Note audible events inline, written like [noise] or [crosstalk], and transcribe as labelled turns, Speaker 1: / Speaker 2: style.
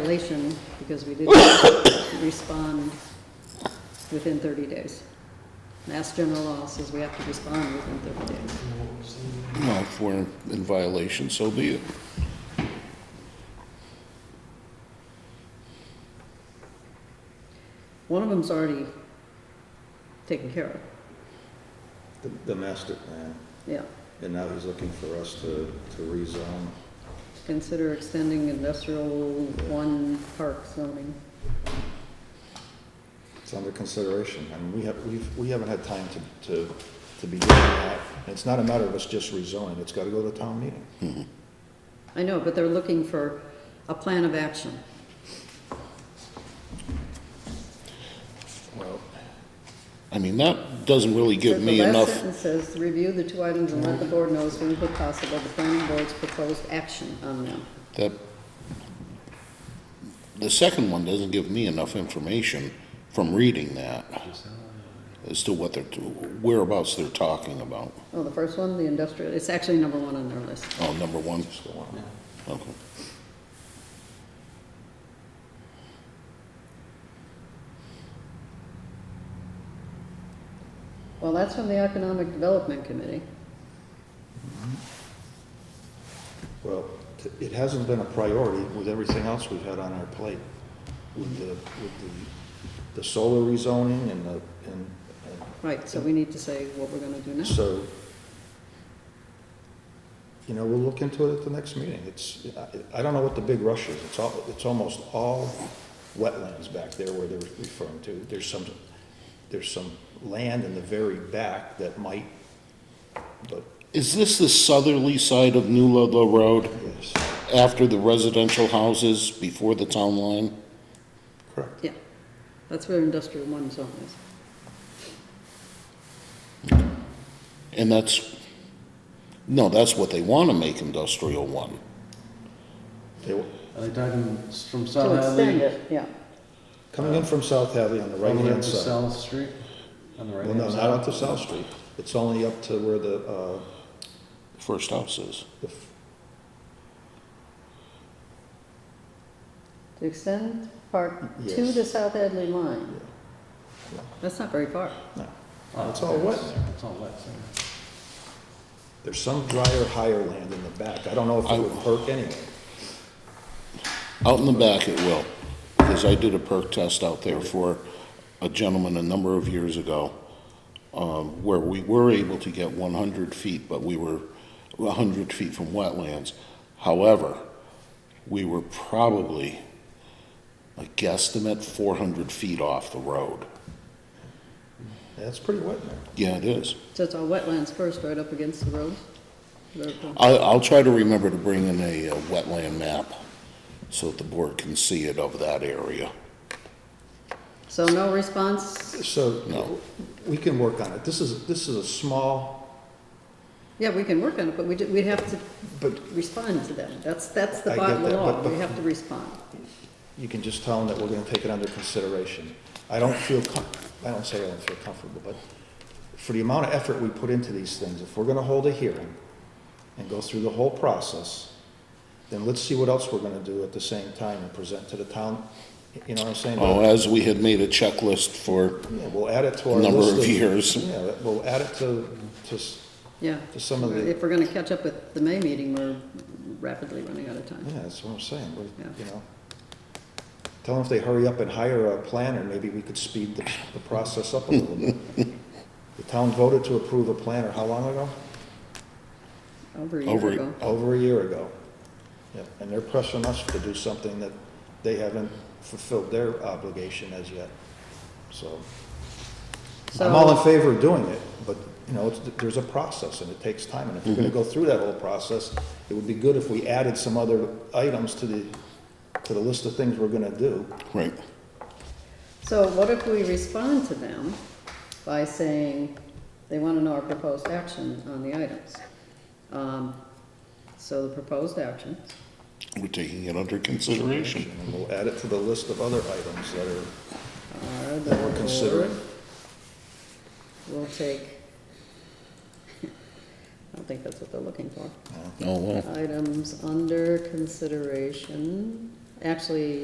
Speaker 1: violation because we didn't [coughs] respond within 30 days. Mass general law says we have to respond within 30 days.
Speaker 2: Well, if we're in violation, so be it.
Speaker 1: One of them's already taken care of,
Speaker 3: The- The master plan,
Speaker 1: yeah.
Speaker 3: and now he's looking for us to, to rezone.
Speaker 1: Consider extending industrial one park zoning.
Speaker 3: It's under consideration. I mean, we have, we've, we haven't had time to, to, to be doing that. And It's not a matter of us just rezoning, it's gotta go to town meeting.
Speaker 1: I know, but they're looking for a plan of action.
Speaker 3: Well,
Speaker 2: I mean, that doesn't really give me
Speaker 1: The last
Speaker 2: enough,
Speaker 1: sentence says, "Review the two items and let the board know as soon as possible the planning board's proposed action on them."
Speaker 2: that, the second one doesn't give me enough information from reading that as to what they're, whereabouts they're talking about.
Speaker 1: Oh, the first one, the industrial, it's actually number one on their list.
Speaker 2: Oh, number one,
Speaker 3: so on.
Speaker 2: okay.
Speaker 1: Well, that's from the Economic Development Committee.
Speaker 3: Well, t- it hasn't been a priority with everything else we've had on our plate. With the, with the, the solar rezoning and the, and,
Speaker 1: Right, so we need to say what we're gonna do
Speaker 3: and
Speaker 1: next.
Speaker 3: so. You know, we'll look into it at the next meeting. It's, I, I don't know what the big rush is. It's all, it's almost all wetlands back there where they're referring to. There's some, there's some land in the very back that might, but,
Speaker 2: Is this the southerly side of New Ludlow Road,
Speaker 3: yes,
Speaker 2: after the residential houses, before the town line?
Speaker 3: correct.
Speaker 1: Yeah, that's where industrial one zone
Speaker 3: Uh,
Speaker 1: is.
Speaker 2: And that's, no, that's what they want to make industrial one.
Speaker 3: They-
Speaker 4: Are they talking s- from
Speaker 1: To
Speaker 4: South
Speaker 1: extend
Speaker 4: Hadley?
Speaker 1: it, yeah.
Speaker 3: Coming in from South Hadley on the
Speaker 4: Right
Speaker 3: right-hand
Speaker 4: hand to
Speaker 3: side.
Speaker 4: South Street? On the right
Speaker 3: Well,
Speaker 4: hand
Speaker 3: no,
Speaker 4: side?
Speaker 3: not up to South Street. It's only up to where the, uh,
Speaker 2: First house is.
Speaker 3: the f-
Speaker 1: To extend park to
Speaker 3: Yes.
Speaker 1: the South Hadley line.
Speaker 3: Yeah.
Speaker 1: That's not very far.
Speaker 3: no.
Speaker 4: Oh,
Speaker 3: It's all wet.
Speaker 4: It's all wet. so-
Speaker 3: There's some drier, higher land in the back. I don't know if it would hurt anyway.
Speaker 2: Out in the back it will, because I did a perk test out there for a gentleman a number of years ago, um, where we were able to get one hundred feet, but we were hundred feet from wetlands. However, we were probably, a guesstimate, four hundred feet off the road.
Speaker 3: Yeah, it's pretty wet in there.
Speaker 2: Yeah, it is.
Speaker 1: So it's all wetlands first, right up against the road. Very cool.
Speaker 2: I, I'll try to remember to bring in a uh, wetland map so that the board can see it of that area.
Speaker 1: So no response?
Speaker 3: So,
Speaker 2: No.
Speaker 3: we can work on it. This is, this is a small,
Speaker 1: Yeah, we can work on it, but we, do- we have to
Speaker 3: but
Speaker 1: respond to them. That's, that's the
Speaker 3: I get
Speaker 1: bottom
Speaker 3: that,
Speaker 1: law.
Speaker 3: but- but-
Speaker 1: We have to respond.
Speaker 3: you can just tell them that we're gonna take it under consideration. I don't feel com, I don't say I don't feel comfortable, but for the amount of effort we put into these things, if we're gonna hold a hearing and go through the whole process, then let's see what else we're gonna do at the same time and present to the town, you know what I'm saying?
Speaker 2: Oh, as we had made a checklist for,
Speaker 3: Yeah, we'll add it to our
Speaker 2: Number
Speaker 3: list
Speaker 2: of years.
Speaker 3: Yeah, we'll add it to, to, s-
Speaker 1: Yeah.
Speaker 3: To some of the-
Speaker 1: If we're gonna catch up with the May meeting, we're rapidly running out of time.
Speaker 3: yeah, that's what I'm saying, we-
Speaker 1: Yeah.
Speaker 3: you know. Tell them if they hurry up and hire a planner, maybe we could speed the, the process up a little bit. The town voted to approve a planner, how long ago?
Speaker 1: Over a
Speaker 2: Over-
Speaker 1: year ago.
Speaker 3: Over a year ago. Yeah, and they're pressing us to do something that they haven't fulfilled their obligation as yet, so. I'm all in
Speaker 1: So,
Speaker 3: favor of doing it, but, you know, it's, there's a process and it takes time. And if we're gonna go through that whole process, it would be good if we added some other items to the, to the list of things we're gonna do.
Speaker 2: right,
Speaker 1: so what if we respond to them by saying they wanna know our proposed action on the items? Um, So the proposed action,
Speaker 2: we're taking it under consideration.
Speaker 3: And we'll add it to the list of other items that are,
Speaker 1: are the
Speaker 3: that we're considering.
Speaker 1: board will take, [laughs] I don't think that's what they're looking for.
Speaker 2: Oh, well.
Speaker 1: Items under consideration, actually,